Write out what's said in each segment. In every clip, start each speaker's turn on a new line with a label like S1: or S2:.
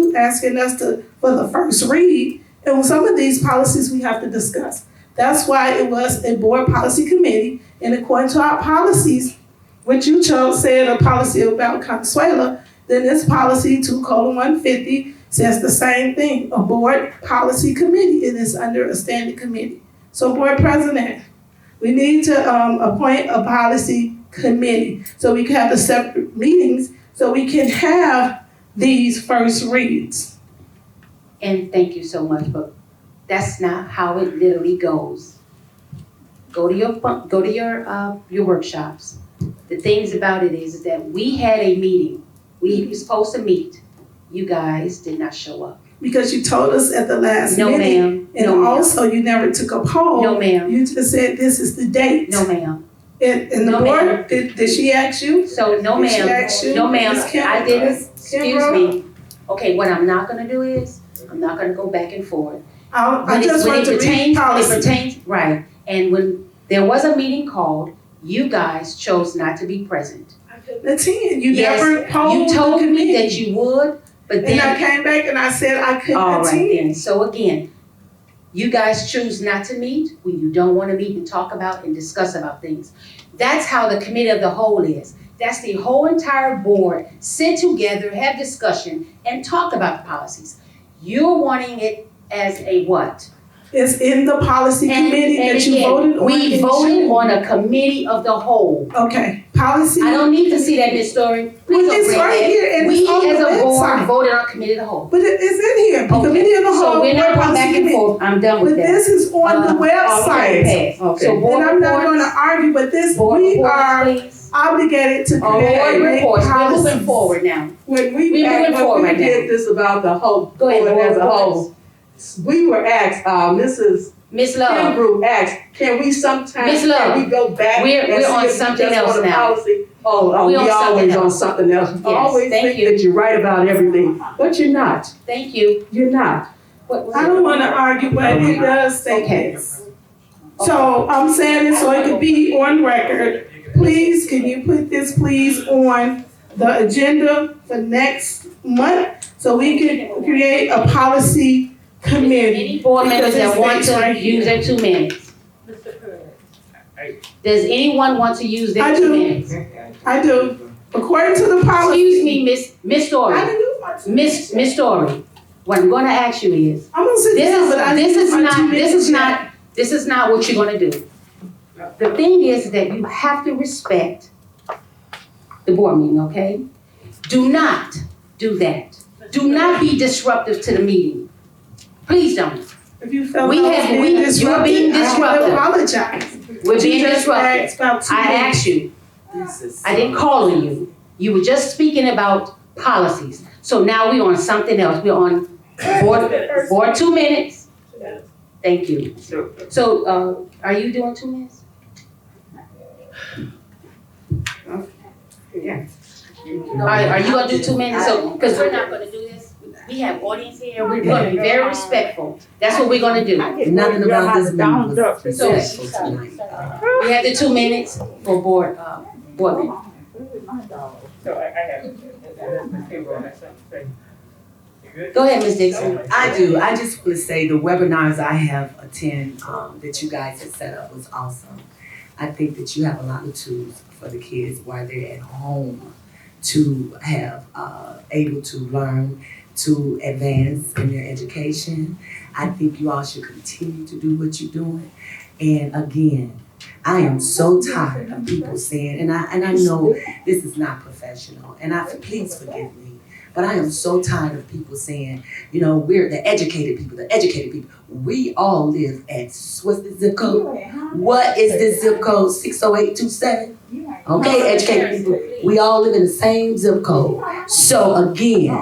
S1: who's asking us to, for the first read? And with some of these policies, we have to discuss. That's why it was a board policy committee, and according to our policies, which you chose said a policy about Consuela, then this policy two colon one fifty says the same thing, a board policy committee, it is under a standing committee. So board president, we need to, um, appoint a policy committee, so we can have the separate meetings, so we can have these first reads.
S2: And thank you so much, but that's not how it literally goes. Go to your fun, go to your, uh, your workshops. The things about it is that we had a meeting, we were supposed to meet, you guys did not show up.
S1: Because you told us at the last
S2: No
S1: meeting,
S2: ma'am,
S1: and
S2: no ma'am,
S1: also you never took a
S2: no
S1: poll,
S2: ma'am,
S1: you just said this is the date.
S2: no ma'am.
S1: And, and the
S2: No, ma'am.
S1: board, did, did she ask you?
S2: So, no
S1: Did she
S2: ma'am,
S1: ask you?
S2: no ma'am,
S1: Ms. Kim-
S2: I didn't,
S1: Ms.
S2: excuse
S1: Kimbrough?
S2: me. Okay, what I'm not gonna do is, I'm not gonna go back and forth.
S1: I, I
S2: When it-
S1: just
S2: when
S1: want to
S2: it
S1: read
S2: pertains- It
S1: policy.
S2: pertains, right, and when there was a meeting called, you guys chose not to be present.
S1: The ten, you
S2: Yes,
S1: never
S2: You
S1: polled the
S2: told me that
S1: committee.
S2: you would, but
S1: And I
S2: then,
S1: came back and I said I couldn't
S2: all right
S1: attend.
S2: then, so again, you guys choose not to meet when you don't wanna meet and talk about and discuss about things. That's how the committee of the whole is. That's the whole entire board, sit together, have discussion, and talk about policies. You're wanting it as a what?
S1: It's in the policy
S2: And-
S1: committee
S2: and
S1: that you
S2: again,
S1: voted on.
S2: We
S1: in
S2: voted
S1: June.
S2: on a committee of the whole.
S1: Okay, policy.
S2: I don't need to see that, Ms. Story.
S1: Well,
S2: Please don't
S1: it's
S2: bring
S1: right
S2: that.
S1: here and
S2: We
S1: it's on
S2: as a
S1: the
S2: board
S1: website.
S2: voted on committee of the whole.
S1: But it is in here, the
S2: Okay,
S1: committee of the
S2: So
S1: whole, board
S2: we're not going back
S1: policy
S2: and
S1: committee.
S2: forth. I'm done
S1: But
S2: with that.
S1: this is on the
S2: Uh,
S1: website.
S2: Okay, pass. So board
S1: And I'm not gonna
S2: reports,
S1: argue, but this,
S2: board
S1: we
S2: reports,
S1: are
S2: please. Oh,
S1: obligated to
S2: Board
S1: create a
S2: reports, we're moving
S1: policy.
S2: forward now.
S3: When we,
S2: We're moving
S3: act- when
S2: forward
S3: we
S2: right now.
S3: did this about the whole
S2: Go ahead,
S3: board as a
S2: board
S3: whole, we were asked, uh, Mrs.
S2: Ms. Love,
S3: Kimbrough asked, can we sometimes,
S2: Ms. Love,
S3: can we go back?
S2: we're-
S3: and
S2: we're
S3: see
S2: on
S3: if we
S2: something
S3: just
S2: else
S3: on a
S2: now.
S3: policy? Oh, oh, we
S2: We're on something
S3: always on
S2: else.
S3: something else. I
S2: Yes,
S3: Always
S2: thank
S3: think
S2: you.
S3: that you're right about everything, but you're not,
S2: thank you.
S3: you're not.
S2: What was
S1: I
S2: it?
S1: don't wanna argue, but it does say
S2: Okay.
S1: this. So I'm saying this so it could be on record. Please, can you put this please on the agenda for next month? So we can create a policy committee.
S2: Any board
S1: Because
S2: members that
S1: it's
S2: want
S1: next right
S2: to
S1: here.
S2: use their two minutes? Does anyone want to use
S1: I
S2: their
S1: do.
S2: two minutes?
S1: I do, according to the policy.
S2: Excuse me, Miss, Miss
S1: I
S2: Story,
S1: didn't do my two
S2: Miss,
S1: minutes.
S2: Miss Story, what I'm gonna ask you is,
S1: I'm gonna sit
S2: this
S1: down,
S2: is,
S1: but I
S2: this
S1: didn't
S2: is
S1: do my two
S2: not, this
S1: minutes
S2: is
S1: yet.
S2: not, this is not what you're gonna do. The thing is that you have to respect the board meeting, okay? Do not do that. Do not be disruptive to the meeting. Please don't.
S1: If you felt I
S2: We
S1: was
S2: have-
S1: being
S2: we- you were
S1: disrupted,
S2: being
S1: I
S2: disruptive.
S1: apologize.
S2: We're being
S1: You just
S2: disruptive.
S1: asked about two
S2: I
S1: minutes.
S2: asked you, I didn't call on you. You were just speaking about policies. So now we're on something else. We're on board, board two minutes. Thank you. So, uh, are you doing two minutes? Are, are you gonna do two minutes? So, cause we're not gonna do this. We have audience here. We're gonna be very respectful. That's what we're gonna do.
S4: Nothing about this meeting was successful
S2: So-
S4: tonight.
S2: We have the two minutes for board, uh, board members.
S5: So I, I have. You good?
S2: Go ahead, Ms. Dixon.
S4: I do, I just want to say the webinars I have attend, um, that you guys have set up was awesome. I think that you have a lot of tools for the kids while they're at home to have, uh, able to learn, to advance in their education. I think you all should continue to do what you're doing. And again, I am so tired of people saying, and I, and I know this is not professional, and I, please forgive me, but I am so tired of people saying, you know, we're the educated people, the educated people. We all live at, what's the zip code? What is this zip code, six oh eight two seven? Okay, educated people, we all live in the same zip code. So again,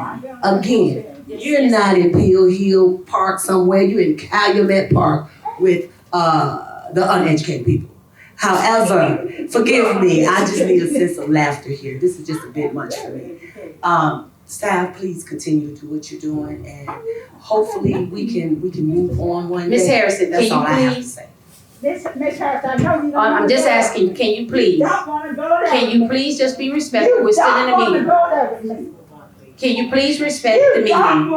S4: again, you're not in Peel Hill Park somewhere, you're in Calumet Park with, uh, the uneducated people. However, forgive me, I just need a sense of laughter here, this is just a bit much for me. Um, staff, please continue to do what you're doing and hopefully we can, we can move on one day.
S2: Ms. Harrison, can
S4: That's all I
S2: you
S4: have to
S2: please,
S4: say.
S6: Miss, Miss Harris, I know you don't.
S2: I- Uh, I'm
S6: wanna
S2: just
S6: go
S2: asking, can you please,
S6: there. Don't wanna go there.
S2: can you please just be respectful? We're still in
S6: You
S2: the
S6: don't
S2: meeting.
S6: wanna go there with me.
S2: Can you please respect the
S6: You don't
S2: meeting?